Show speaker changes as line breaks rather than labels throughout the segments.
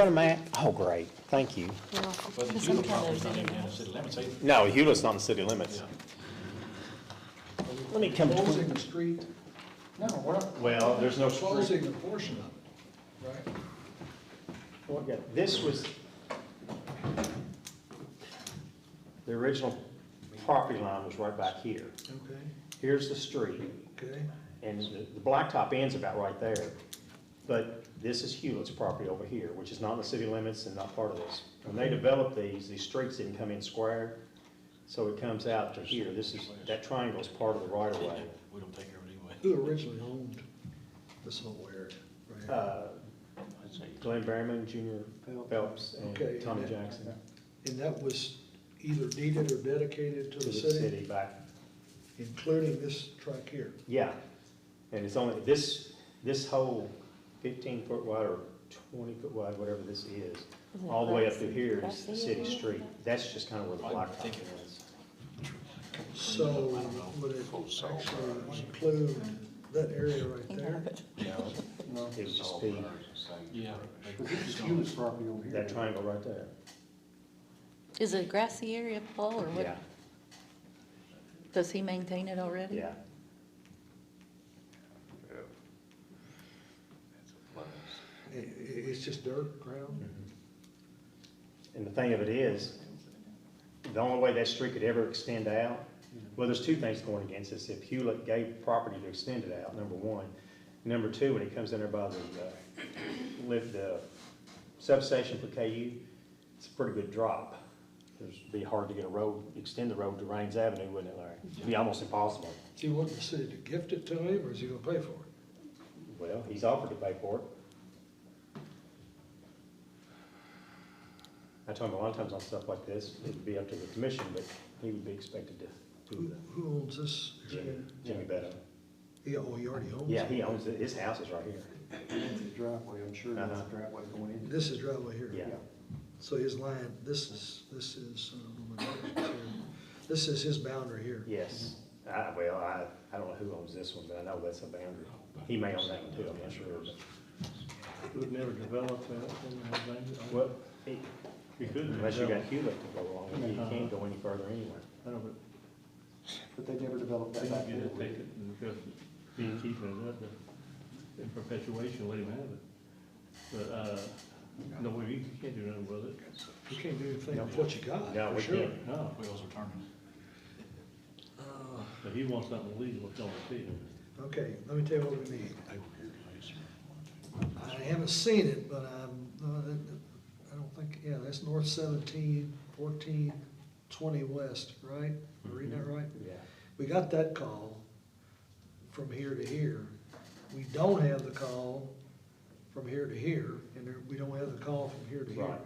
Got a map? Oh, great, thank you.
But the Hewlett property's not even in the city limits either.
No, Hewlett's not in city limits. Let me come
Closing
to,
the street? No, we're not.
Well, there's no street.
Closing a portion of it, right?
this was, the original property line was right back here.
Okay,
Here's the street,
okay.
and the the blacktop ends about right there. But this is Hewlett's property over here, which is not in the city limits and not part of this. When they developed these, these streets didn't come in square, so it comes out to here. This is, that triangle is part of the right of way.
We don't take care of it anyway.
Who originally owned this whole area, right?
Uh, Glenn Berryman, Junior Phelps,
Okay.
and Tommy Jackson.
And that was either deeded or dedicated to
To
the city,
back,
including this track here.
yeah. And it's only, this, this whole fifteen foot wide or twenty foot wide, whatever this is, all the way up through here is the city street. That's just kind of where the
I
blacktop
think it
is.
So would it actually include that area right there?
It would just be
Yeah.
Hewlett's property over here.
that triangle right there,
Is it a grassy area, Paul, or
yeah,
what? Does he maintain it already?
yeah.
I- i- it's just dirt, ground?
And the thing of it is, the only way that street could ever extend out, well, there's two things going against this. If Hewlett gave property to extend it out, number one. Number two, when it comes in there by the, uh, lift, the substation for KU, it's a pretty good drop. There's, it'd be hard to get a road, extend the road to Rains Avenue, wouldn't it, Larry? It'd be almost impossible.
Do you want the city to gift it to him, or is he gonna pay for it?
Well, he's offered to pay for it. I told him a lot of times on stuff like this, it'd be up to the commission, but he would be expected to
Who,
do that.
who owns this area?
Jimmy Beto.
He, oh, he already owns it?
Yeah, he owns it, his house is right here. Uh-huh.
That's the driveway, I'm sure that's the driveway going in.
This is driveway here.
Yeah.
So his land, this is, this is, um, this is his boundary here.
Yes. I, well, I, I don't know who owns this one, but I know that's a boundary. He may own that one too, I'm not sure.
We've never developed that, and I think-
Well, he-
We couldn't
unless you got
develop-
Hewlett to go along with, it, you can't go any further anywhere.
I don't know,
But they never developed
but
that
we
back
could
there.
get it, take it, and just be
Mm-hmm.
keeping it up in perpetuation, let him have it. But, uh, no, we you can't do nothing with it,
You can't do anything with what you got,
No,
for
we
sure.
can't.
no,
Wheels are turning.
but he wants something legal, it's on the field.
Uh, Okay, let me tell you what we need. I haven't seen it, but I'm, uh, I don't think, yeah, that's north 17, 14, 20 west, right? Am I reading that right?
Yeah.
We got that call from here to here. We don't have the call from here to here, and there- we don't have the call from here to here.
Right.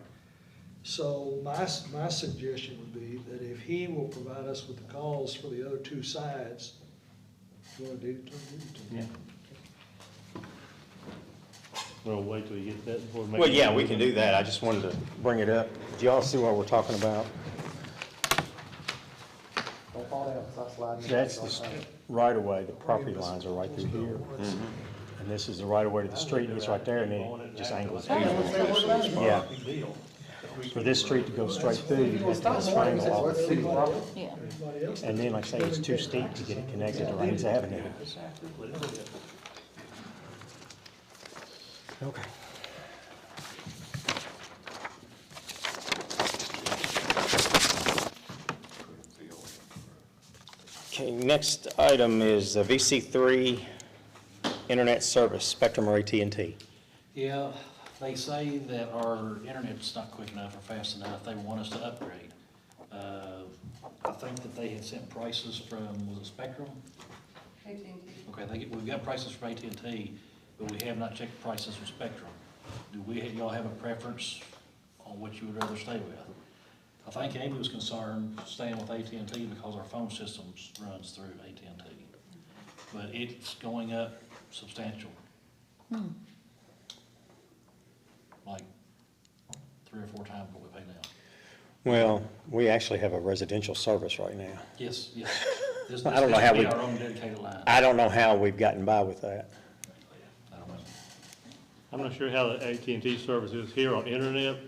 So my, s- my suggestion would be that if he will provide us with the calls for the other two sides, you wanna do, it, Tony, do it, Tony.
Yeah. Well, wait till you get that before. making-
Well, yeah, we can do that. I just wanted to bring it up. Do y'all see what we're talking about?
Don't fall down, it's not sliding.
That's the st- right of way, the property lines are right through here. And this is the right of way to the street, and it's right there, and then it just angles. Yeah. For this street to go straight through, you have to go triangle off.
That's city property.
Yeah.
Everybody else?
And then, like I say, it's too steep to get it connected to Rains Avenue. Okay. Okay, next item is uh, VC3 Internet Service, Spectrum or at and T.
Yeah, they say that our internet's not quick enough or fast enough, they want us to upgrade. Uh, I think that they had sent prices from, was it Spectrum? Okay, they, get- we've got prices from AT&T, but we have not checked prices from Spectrum. Do we, y'all have a preference on what you would rather stay with? I think Amy was concerned staying with AT&T because our phone systems runs through AT&T. But it's going up substantial. Like three or four times what we pay now.
Well, we actually have a residential service right now.
Yes, yes. This-
I don't know
this
how
will be
we-
our own dedicated line.
I don't know how we've gotten by with that.
I don't know.
I'm not sure how the AT&T service is here on internet,